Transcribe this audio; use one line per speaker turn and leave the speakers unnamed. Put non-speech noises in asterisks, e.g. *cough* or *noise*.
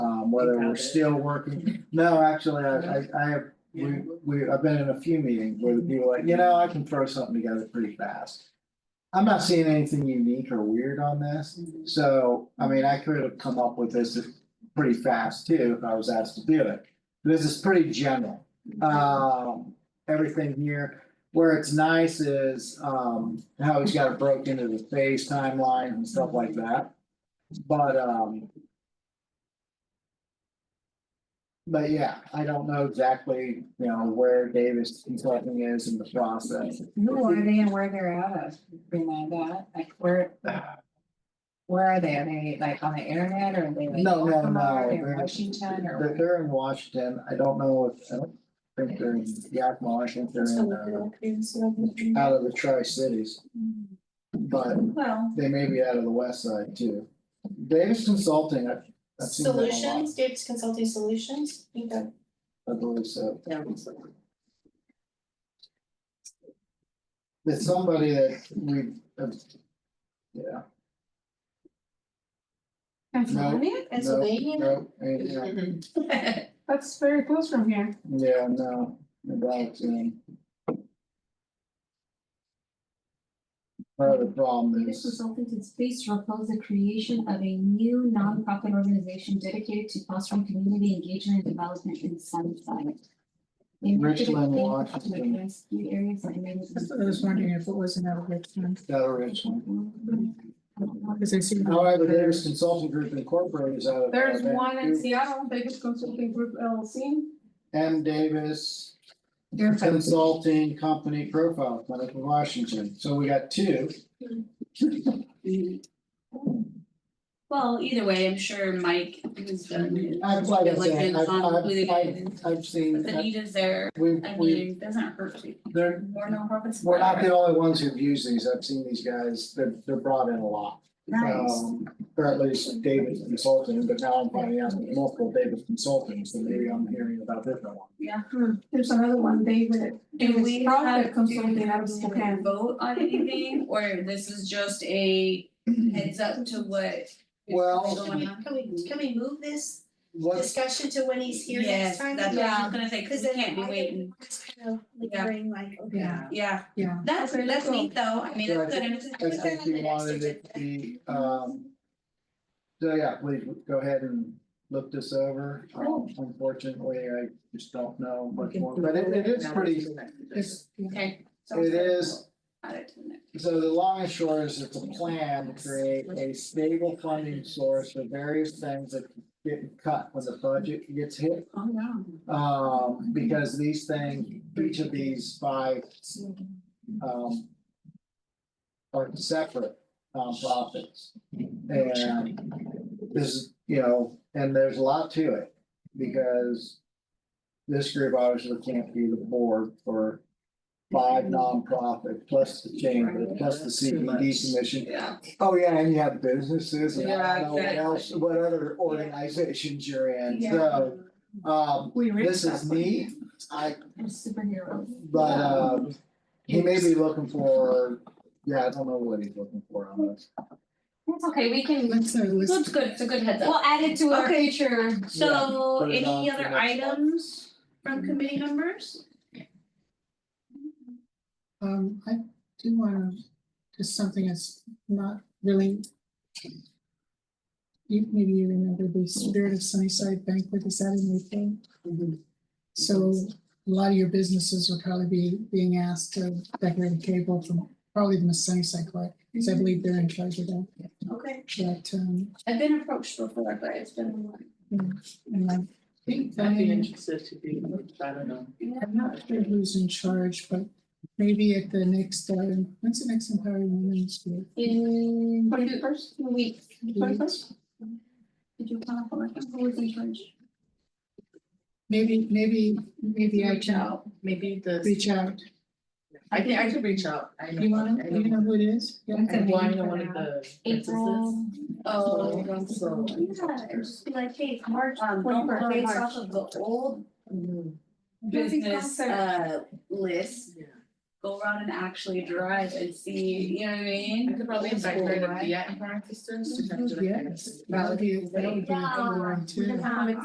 on um, whether we're
Without it.
still
*laughs*
working. No, actually, I, I, I have, we,
Yeah.
we, I've been in a few meetings where the people are like, you know, I can throw something together pretty fast. I'm not seeing anything unique or weird on this, so, I mean, I could have come up with this pretty fast too, if I was asked to do it. This is pretty general, um, everything here, where it's nice is, um, how he's got it broke into the phase timeline and stuff like that. But, um. But yeah, I don't know exactly, you know, where Davis consulting is in the process.
Who are they and where they're out of, remind that, like where? Where are they, are they like on the internet or are they like?
No, no,
Yakima? Are they
no,
in
they're-
Washington
They're,
or?
they're in Washington, I don't know if, I don't think they're in Yakima, I think they're in, uh, out of the tri-cities, but
Well,
they may be out of the west side too. Davis Consulting, I've, I've seen them a lot.
solutions, Dave's Consulting Solutions, you got-
I believe so.
Yeah.
It's somebody that we, uh, yeah,
Pennsylvania? Pennsylvania?
no, and, yeah,
That's very close from here.
yeah, no, about, um. Part of the problem
Davis
is,
Consulting is pleased to propose the creation of a new nonprofit organization dedicated to fostering community engagement and development in Sunnyside. They work with
Richland,
the-
Washington.
the rescue areas and maybe-
That's what I was wondering if it was another Richmond,
that originally.
because I see. the-
However, Davis Consulting Group Incorporated is out of.
There's
Alabama,
one in
too.
Seattle, Davis Consulting Group LLC.
M Davis
They're from-
Consulting Company Profile Clinic in Washington, so we got two.
Well, either way, I'm sure Mike has done his.
I've, like I
Like,
said,
been
I've, I've,
convoluted.
I've, I've seen,
But the need is there,
we,
I
we,
mean, it doesn't hurt to,
they're,
more nonprofits.
we're not the only ones who've used these, I've seen these guys, they're, they're brought in a lot.
Nice,
Um, Or at least David Consulting, but now I'm finding out there's multiple David Consultants, so maybe I'm hearing about different ones.
yeah.
There's another one, David.
Do we have,
Profit
do we
Consulting out
have
of
to
Spokane.
vote on
*laughs*
anything, or this is just a heads up to what? is
Well-
going on?
Can we, can we move this
What's,
discussion to when he's here next
Yes,
time?
that's what I
Yeah.
was gonna say, cause we
then
can't be
I-
waiting,
It's kind of
Yeah.
lingering, like, okay.
Yeah.
yeah.
Yeah.
That's,
Okay,
that's
cool.
neat though, I mean,
So I
that's good, I'm
I
just-
think you wanted it to be, um. So yeah, please go ahead and look this over, Um, unfortunately, I just don't know much more, but it, it is pretty,
It's- yeah.
okay. sounds
it
good.
is.
Add it to the next.
So the long and short is it's a plan to create a stable funding source for various things that get cut when the budget gets hit.
Oh, no.
Um, because these things, each of these five, um, are separate nonprofits. And this is, you know, and there's a lot to it because this group obviously can't be the board for five nonprofits, plus the chamber, plus the CBD commission,
Yeah,
Oh, yeah, and you have businesses and I don't know what
Yeah,
else, what other organizations you're in, so, um,
We read
this is
that one.
neat. I,
and Superheroes.
but, um, he may be looking for, yeah, I don't know what he's looking for on this.
That's okay, we can,
That's our list.
so it's good, it's a good heads up.
we'll add it to our
Okay.
future.
So
Yeah, put it on
any
for
other
next month.
items from committee members?
Um, I do wanna, just something that's not really. You, maybe you remember the Spirit of Sunnyside banquet, is that in April? Mm-hmm. So a lot of your businesses will probably be being asked to decorate a table from probably the Miss Sunnyside Club, because
Mm-hmm.
I believe they're in charge of that.
Okay,
But, um,
I've been approached before, but it's been a while.
and I think
I'd be
Diane-
interested to be, I don't know.
I'm not sure who's in charge, but maybe at the next, uh, when's the next Empowering Women's Week?
In twenty-first week,
Twenty-first?
did you plan for it? Who was in charge?
Maybe, maybe, maybe I
Reach
can
out, maybe the,
reach out.
I can, I can reach out. I know-
You wanna,
I
you
know-
know who it is? Yeah.
Okay.
Well, I know one of the.
April.
Oh.
So-
Yeah, and just be like, hey, March
Um, don't
twenty-fourth,
worry, it's
March.
off of the old
businesses.
business
concert.
uh list,
Mm-hmm. Yeah.
go around and actually drive and see, you know what I
I
mean?
could probably invite her to
Right.
be at Empire Sisters. to have dinner.
Yes, that would be, that would be a good one too.
Um,